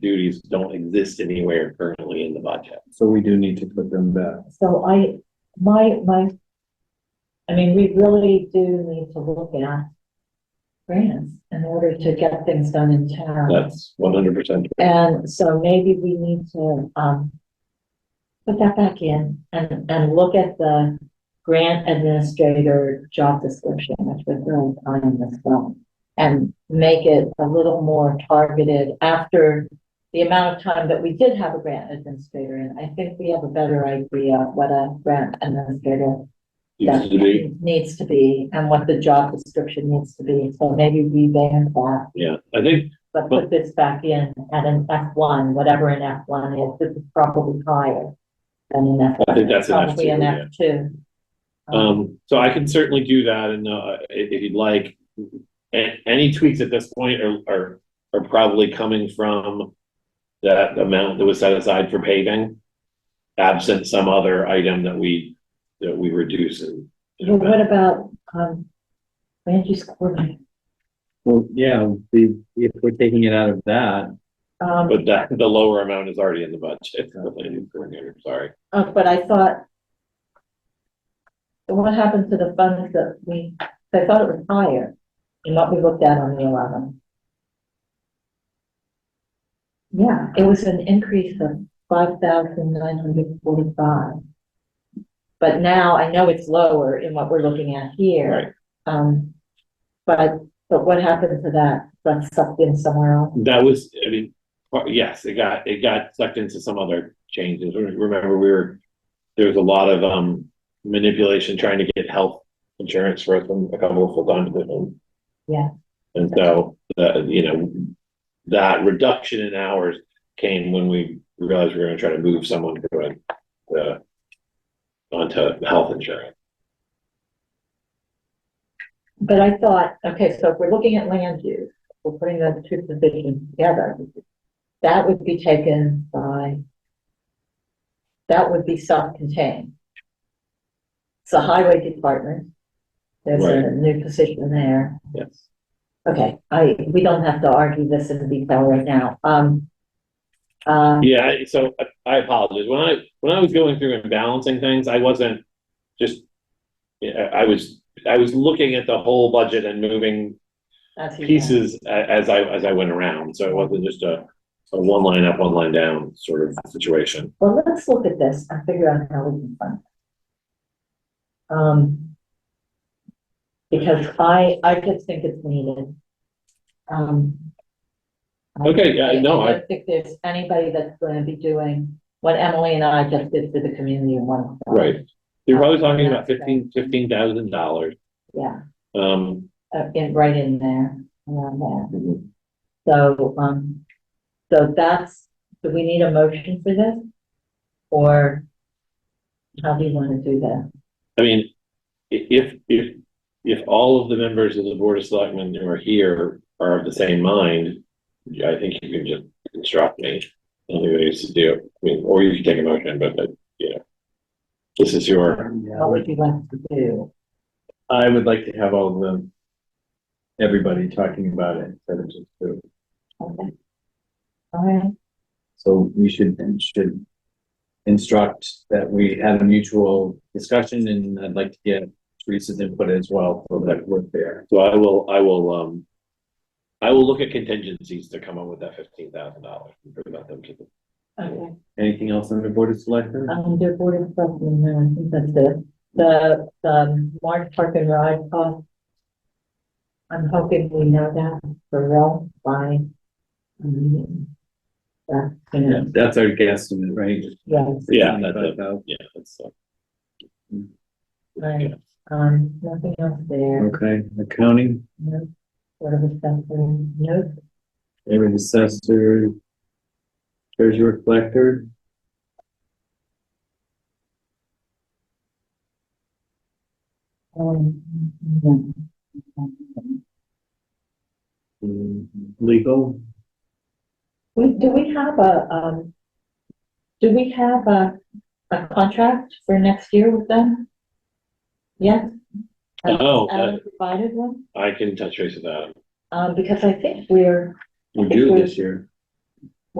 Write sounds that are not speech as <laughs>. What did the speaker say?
duties don't exist anywhere currently in the budget. So we do need to put them back. So I, my, my, I mean, we really do need to look at grants in order to get things done in town. That's one hundred percent. And so maybe we need to, um, put that back in and, and look at the grant administrator job description, which was really fine in this film. And make it a little more targeted after the amount of time that we did have a grant administrator. And I think we have a better idea of what a grant administrator Used to be, needs to be and what the job description needs to be. So maybe revamp that, yeah, I think, but put this back in at an F one, whatever an F one is, this is probably higher than an F I one. think that's an F Probably two, an yeah. F two. Uh-huh. um, so I can certainly do that and, uh, i- if, you'd like. A- any tweaks at this point are, are, are probably coming from that amount that was set aside for paving. Absent some other item that we, that we reduce in. in Well, what amount. about, um, land use coordinator? Well, yeah, the, if we're taking it out of that, Um, But that, the lower amount is already in the budget, <laughs> the planning coordinator, sorry. uh, but I thought so what happened to the funds that we, I thought it was higher than what we looked at on the eleventh. Yeah, it was an increase of five thousand nine hundred forty-five. But now I know it's lower in what we're looking at here. Right. Um, but, but what happened to that? That's sucked in somewhere else? That was, I mean, part- yes, it got, it got sucked into some other changes. Re- Remember, we were, there was a lot of, um, manipulation trying to get health insurance for them, a couple of full-time positions. Yeah. And so, uh, you know, that reduction in hours came when we realized we were gonna try to move someone to a, uh, onto health insurance. But I thought, okay, so if we're looking at land use, we're putting those two positions together. That would be taken by, that would be self-contained. It's the highway department. There's a Right. new position there. Yes. Okay, I, we don't have to argue this in detail right now. Um, uh, Yeah, I- so I- I apologize. When I, when I was going through and balancing things, I wasn't just, yeah, I was, I was looking at the whole budget and moving that's your- pieces a- as I, as I went around. So it wasn't just a, a one line up, one line down sort of situation. Well, let's look at this and figure out how we can fund. it. Um. Because I, I just think it's needed. Um. I- Okay, yeah, no, I- don't think there's anybody that's gonna be doing what Emily and I just did for the community in one. shot. Right. You're probably talking about fifteen, fifteen thousand dollars. Yeah, Um, uh, in, right in there, around there. So, um, so that's, do we need a motion for this? Or how do you wanna do that? I mean, i- if, if, if all of the members of the Board of Selectmen who are here are of the same mind, yeah, I think you can just instruct me, tell me what you to do, I mean, or you can take a motion, but, but, you know. This is your, What would you like to do? I would like to have all of them, everybody talking about it instead of just two. Okay. All right, So we should, should instruct that we have a mutual discussion and I'd like to get Teresa's input as well, so that we're fair. so I will, I will, um. I will look at contingencies to come up with that fifteen thousand dollars and present them to the okay, Anything else on the board of selectmen? um, the board of selectmen, no, I think that's it. The, the March Park and Ride cost. I'm hoping we know that for real by. um, the meeting. That's Yeah, gonna, that's our guesstimate, right? yes, Yeah, that's it. $25,000. Yeah, that's, uh, right, um, nothing else there, Okay, accounting, no, sort of a stuff, no, area assessor, treasurer collector. um. no. mm, Legal, We, do we have a, um, do we have a, a contract for next year with them? Yes? Oh, Alan provided one, I can touch base with that. um, because I think we're, we do this year.